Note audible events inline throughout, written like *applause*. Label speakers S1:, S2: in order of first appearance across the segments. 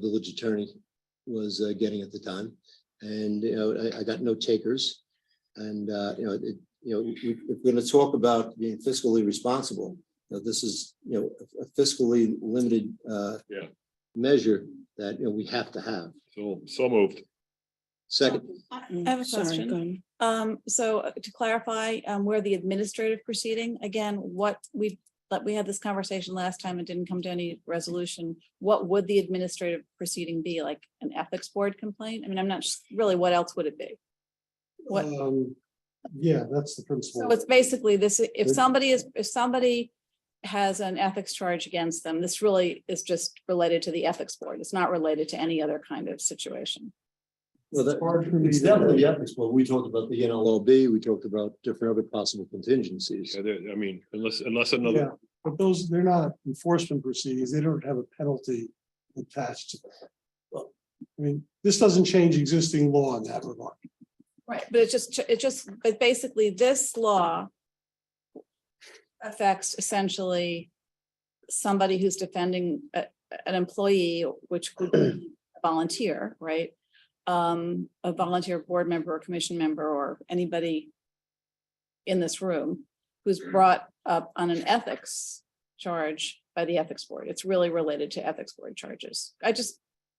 S1: village attorney was uh, getting at the time. And, you know, I, I got no takers. And, uh, you know, it, you know, we- if we're going to talk about being fiscally responsible, you know, this is, you know, a- a fiscally limited uh,
S2: Yeah.
S1: measure that, you know, we have to have.
S2: So, so moved.
S1: Second,
S3: I have a question. Um, so uh, to clarify, um, where the administrative proceeding, again, what we, like, we had this conversation last time and didn't come to any resolution. What would the administrative proceeding be? Like an ethics board complaint? I mean, I'm not, s- really, what else would it be? What-
S4: Um, yeah, that's the
S3: So
S4: principle.
S3: it's basically this, if
S4: Good.
S3: somebody is, if somebody has an ethics charge against them, this really is just related to the ethics board. It's not related to any other kind of situation.
S1: well,
S4: It's hard for
S1: that,
S4: me
S1: it's
S4: to-
S1: definitely the ethics, but we talked about the NLLB, we talked about different other possible contingencies.
S2: I did- I mean, unless, unless
S4: Yeah,
S2: another,
S4: but those, they're not enforcement proceedings. They don't have a penalty attached to them. I mean, this doesn't change existing law in that regard.
S3: Right. But it's just, it just, but basically this law affects essentially somebody who's defending a- an employee, which could be a volunteer, right? Um, a volunteer board member or commission member or anybody in this room who's brought up on an ethics charge by the ethics board. It's really related to ethics board charges. I just,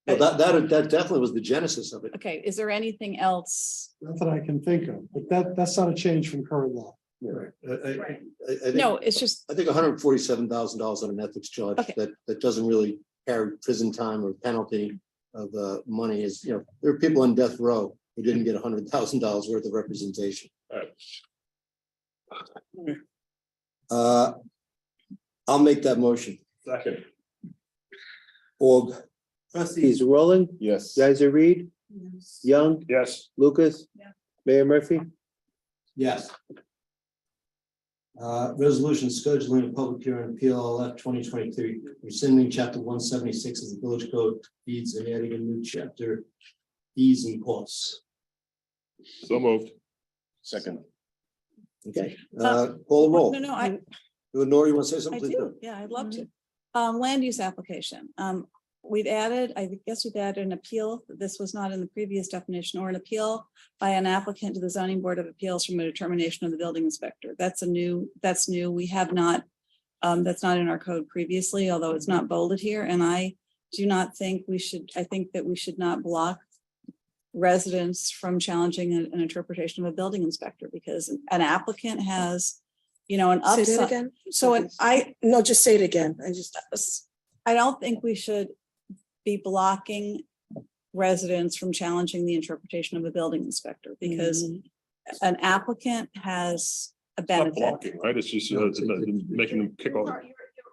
S1: Well, that, that, that definitely was the genesis of it.
S3: okay, is there anything else?
S4: Not that I can think of, but that, that's not a change from current law.
S1: Right. I, I- I think-
S3: No, it's just,
S1: I think hundred and forty-seven thousand dollars on an ethics charge
S3: Okay.
S1: that, that doesn't really carry prison time or penalty of uh, money is, you know, there are people on death row who didn't get hundred thousand dollars worth of representation.
S2: Alright.
S1: Uh, I'll make that motion.
S2: second,
S1: Org.
S5: Trustees Rolling,
S2: yes.
S5: Geiser Reed, Young,
S2: Yes,
S5: Lucas.
S3: Yeah.
S5: Mayor Murphy.
S1: Yes. Uh, resolution scheduling a public hearing, PLLF twenty twenty-three, rescinding chapter one seventy-six of the village code deeds and adding a new chapter fees and costs.
S2: so moved.
S5: Second.
S1: Okay, uh, call the roll.
S3: no, no, I,
S1: Nora, you want to say
S3: I
S1: something? Please
S3: do, yeah, I'd love to. Um, land use application, um, we've added, I guess we've added an appeal, this was not in the previous definition, or an appeal by an applicant to the zoning board of appeals from a determination of the building inspector. That's a new, that's new, we have not, um, that's not in our code previously, although it's not bolded here, and I do not think we should, I think that we should not block residents from challenging an an interpretation of a building inspector, because an applicant has, you know, an
S6: Say that
S3: upside.
S6: again?
S3: So an- I,
S6: No, just say it again. I just,
S3: I don't think we should be blocking residents from challenging the interpretation of a building inspector because
S6: because
S3: an applicant has a
S2: It's not
S3: benefit.
S2: blocking, Right, it's just uh, it's not making them kick off.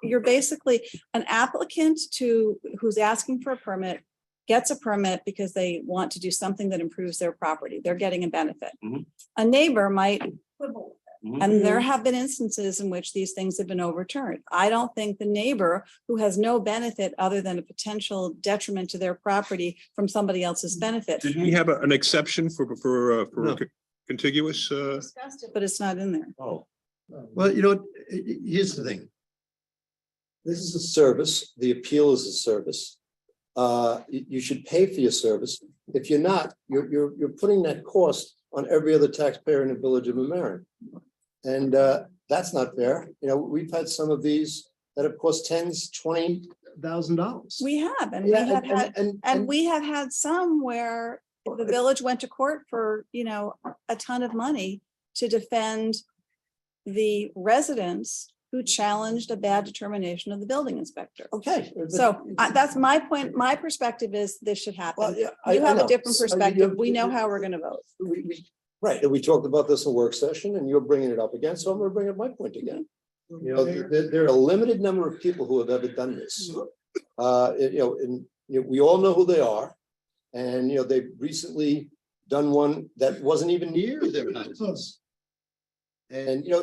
S3: You're basically, an applicant to, who's asking for a permit gets a permit because they want to do something that improves their property. They're getting a benefit.
S2: Mhm.
S3: A neighbor might quibble with
S2: Mhm.
S3: And there have been instances in which these things have been overturned. I don't think the neighbor who has no benefit other than a potential detriment to their property from somebody else's benefit.
S7: Didn't we have a- an exception for, for, uh,
S1: No.
S7: for co- contiguous, uh,
S3: Discussed it, But it's not in there.
S2: Oh,
S1: Well, you know, i- i- here's the thing. This is a service, the appeal is a service. Uh, you, you should pay for your service. If you're not, you're, you're, you're putting that cost on every other taxpayer in the village of Mamaroneck. And, uh, that's not fair. You know, we've had some of these that have cost tens, twenty thousand dollars.
S3: We have, and we
S1: Yeah,
S3: have
S1: and,
S3: had,
S1: and, and.
S3: and we have had some where the village went to court for, you know, a ton of money to defend the residents who challenged a bad determination of the building inspector.
S1: Okay. Oh, but-
S3: So I- that's my point. My perspective is this should happen.
S1: Well, yeah, I-
S3: You
S1: I
S3: have a
S1: know. I
S3: different
S1: mean,
S3: perspective.
S1: you-
S3: We know how we're gonna vote.
S1: we, we, right, and we talked about this in work session, and you're bringing it up again, so I'm gonna bring up my point again. You know,
S4: Mayor?
S1: there, there are a limited number of people who have ever done this. Uh, it- you know, and, you know, we all know who they are, and, you know, they've recently done one that wasn't even near *laughs* their houses. And, you know,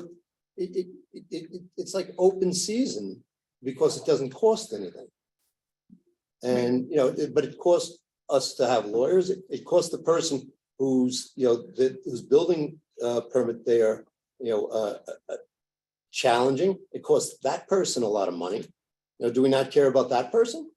S1: it, it, it, it, it- it's like open season, because it doesn't cost anything. And, you know, it- but it costs us to have lawyers, it, it costs the person who's, you know, that whose building uh permit they are, you know, uh. uh, uh, Challenging, it costs that person a lot of money. You know, do we not care about that person?